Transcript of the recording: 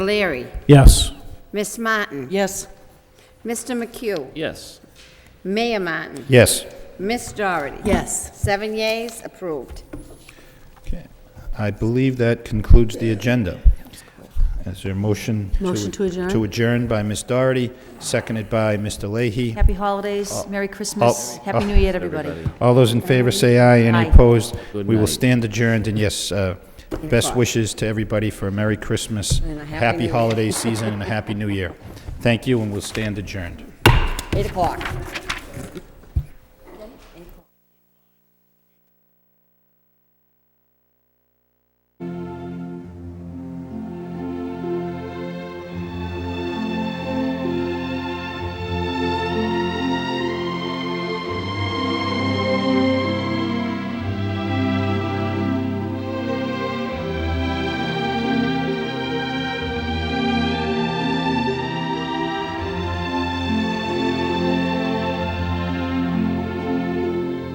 Leary, Yes. Miss Martin, Yes. Mr. McHugh, Yes. Mayor Martin, Yes. Miss Doherty. Yes. Seven yeas, approved. Okay. I believe that concludes the agenda. Is there a motion? Motion to adjourn? To adjourn by Ms. Doherty, seconded by Mr. Leahy. Happy holidays, Merry Christmas, Uh, Oh, Happy New Year to everybody. All those in favor say aye, Aye. any opposed? Good We will night. stand adjourned, and yes, uh, best wishes to everybody for a Merry Christmas, And a Happy New happy Year. holiday season, and a Happy New Year. Thank you, and we'll stand adjourned. Eight o'clock.